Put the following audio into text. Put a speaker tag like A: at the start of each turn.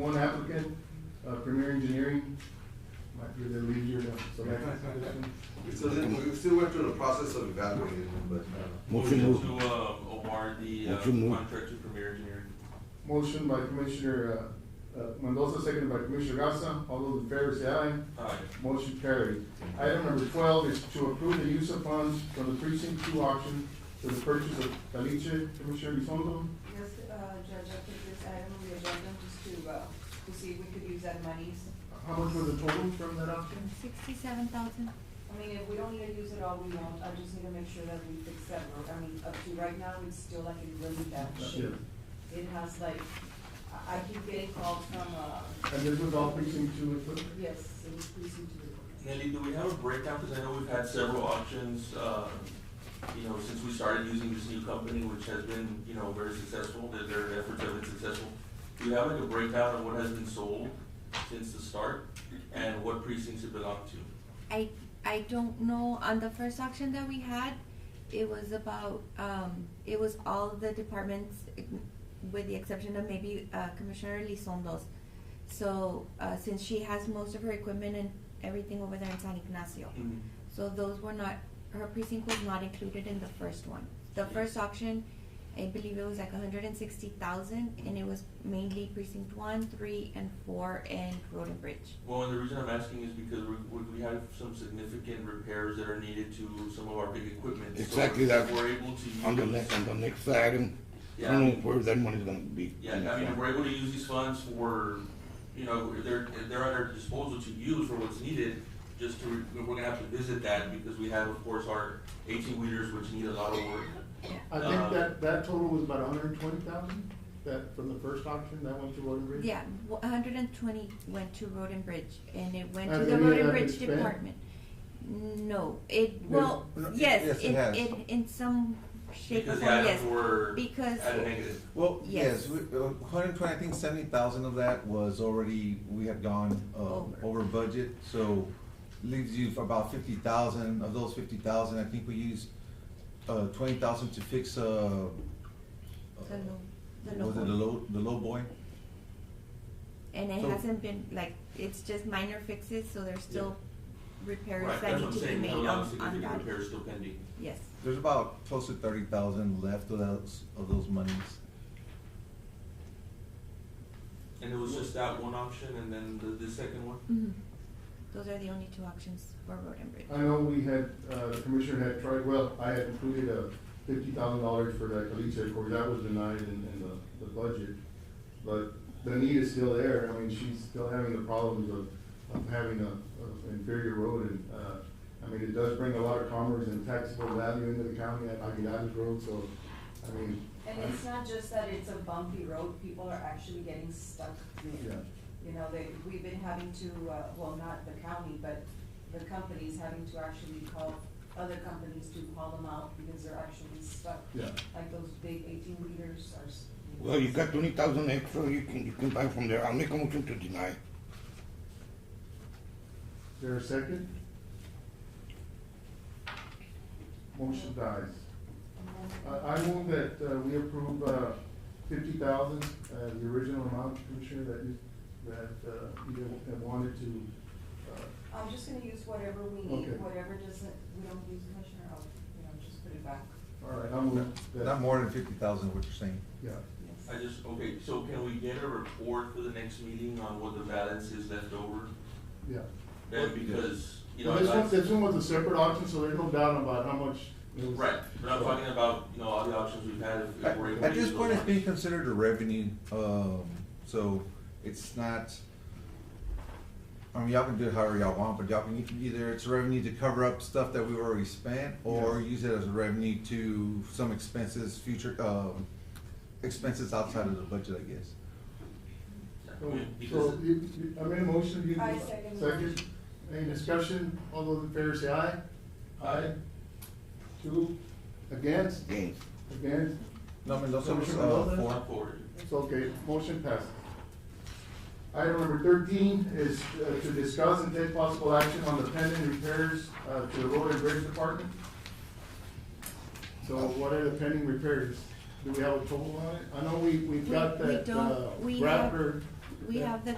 A: One applicant, uh, Premier Engineering, might be the lead here, so that's this one.
B: It doesn't, we still went through the process of evaluating, but, uh,
C: Motion
D: Motion
C: moved.
D: to, uh, award the, uh,
C: Motion moved.
D: contract to Premier Engineering.
A: Motion by Commissioner, uh, uh, Mendoza, seconded by Commissioner Gasa, all those in favor say aye.
D: Aye.
A: Motion carried.
E: uh,
A: Item number twelve is to approve the use of funds from the precinct two auction for the purchase of caliche, Commissioner Elizondo.
F: Yes, uh, Judge, I put this item on the agenda just to, uh, to see if we could use that money.
A: How much was the total from that auction?
G: Sixty-seven thousand,
F: I mean, if we don't need to use it all, we won't. I just need to make sure that we fix that road. I mean, up to right now, it's still like in really bad shape. It has like, I, I keep getting calls from, uh,
A: And this was all precinct two equipment?
F: yes, it was precinct to
D: Nelly, do we have a breakdown, because I know we've had several auctions, uh, you know, since we started using this new company, which has been, you know, very successful, their, their efforts have been successful. Do you have like a breakdown of what has been sold since the start, and what precincts it belonged to?
G: I, I don't know, on the first auction that we had, it was about, um, it was all of the departments with the exception of maybe, uh, Commissioner Lisondo's. So, uh, since she has most of her equipment and everything over there in San Ignacio. So those were not, her precinct was not included in the first one. The first auction, I believe it was like hundred and sixty thousand, and it was mainly precinct one, three, and four, and Road and Bridge.
D: Well, and the reason I'm asking is because we, we- we have some significant repairs that are needed to some of our big equipment. So
C: Exactly
D: if
C: that.
D: We're able to use.
C: On the next, on the next item, I
D: Yeah.
C: don't know where that money's gonna be.
D: Yeah, I mean, if we're able to use these funds for, you know, if they're, if they're at our disposal to use for what's needed, just to, re- we're gonna have to visit that because we have, of course, our eighteen wheelers which need a lot of work.
A: I
D: Uh,
A: think that, that total was about hundred and twenty thousand, that, from the first auction, that went to Roden Bridge?
G: Yeah, one hundred and twenty went to Road and Bridge, and it went to
A: Has
G: the
A: any of
G: Road and
A: that
G: Bridge
A: been spent?
G: department. No, it,
A: There's-
G: well,
A: no,
G: yes,
E: yes, it
G: it,
E: has.
G: it, in some shape or
D: Because
G: form,
D: the items
G: yes,
D: were
G: because.
D: at a negative.
E: Well,
G: Yes.
E: yes, we- uh, 120, I think 70,000 of that was already, we had gone uh,
G: Over.
E: over budget, so leaves you for about 50,000. Of those 50,000, I think we used uh, 20,000 to fix, uh, uh,
G: The low, the low
E: was it the
G: one.
E: low, the low boy?
G: And it
E: So-
G: hasn't been, like, it's just minor fixes, so there's still repairs
D: Right,
G: that
D: that's
G: need
D: what I'm
G: to be
D: saying, we
G: made
D: have a lot of
G: on, on
D: significant
G: that,
D: repairs still pending.
G: yes.
E: There's about close to 30,000 left of those, of those monies.
D: And it was just that one option and then the, the second one?
G: Mhm. Those are the only two options for road and bridge.
A: I know we had, uh, the commissioner had tried, well, I had included a fifty thousand dollars for that caliche, of course, that was denied in, in the, the budget. But the need is still there, I mean, she's still having the problems of, of having a, a inferior road and, uh, I mean, it does bring a lot of commerce and taxable value into the county at Aguilar's Road, so, I mean.
F: And it's not just that it's a bumpy road, people are actually getting stuck in
A: Yeah.
F: it. You know, they, we've been having to, uh, well, not the county, but the companies having to actually call other companies to haul them out because they're actually stuck.
A: Yeah.
F: Like those big eighteen liters are. s-
C: Well, you got twenty thousand extra, you can, you can buy from there. I'll make a motion to deny.
A: Is there a second? Motion dies. I, I move that, uh, we approve, uh, fifty thousand, uh, the original amount, Commissioner, that you, that, uh, you had wanted to, uh,
F: I'm just gonna use whatever we need,
A: Okay.
F: whatever doesn't, we don't use commissioner, I'll, you know, just put it back.
A: all right, I'll move that.
E: Not more than 50,000, what you're saying.
A: Yeah,
F: Yes.
D: I just, okay, so can we get a report for the next meeting on what the balance is left over?
A: yeah.
D: Then because, you know.
A: Well, this
D: I'd like-
A: one, this one was a separate auction, so there's no doubt about how much. it was-
D: Right, but I'm talking about, you know, all the options we've had, if- if we're able to.
E: At this
D: use
E: point,
D: those
E: it's being
D: options.
E: considered a revenue, um, so it's not, I mean, y'all can do it however y'all want, but y'all can, either it's revenue to cover up stuff that we've already spent, or use it as a revenue to some expenses, future, um, expenses outside of the budget, I guess.
A: Oh, So,
D: Yeah,
A: so
D: Because,
A: you, you- I made a motion, you.
F: I second the
A: Second,
F: motion.
A: any discussion, all those in favor say aye? Aye. Two, against,
C: Again,
A: against,
E: No, Mendoza was,
A: Commissioner
E: uh,
A: Mendoza?
E: for,
D: I'm forward.
A: It's okay, motion passes. Item number thirteen is uh, to discuss and take possible action on the pending repairs uh, to the road and bridge department. So what are the pending repairs? Do we have a total on it? I know we, we've got
G: We- we
A: that
G: don't.
A: uh,
G: We have-
A: wrapper
G: we have the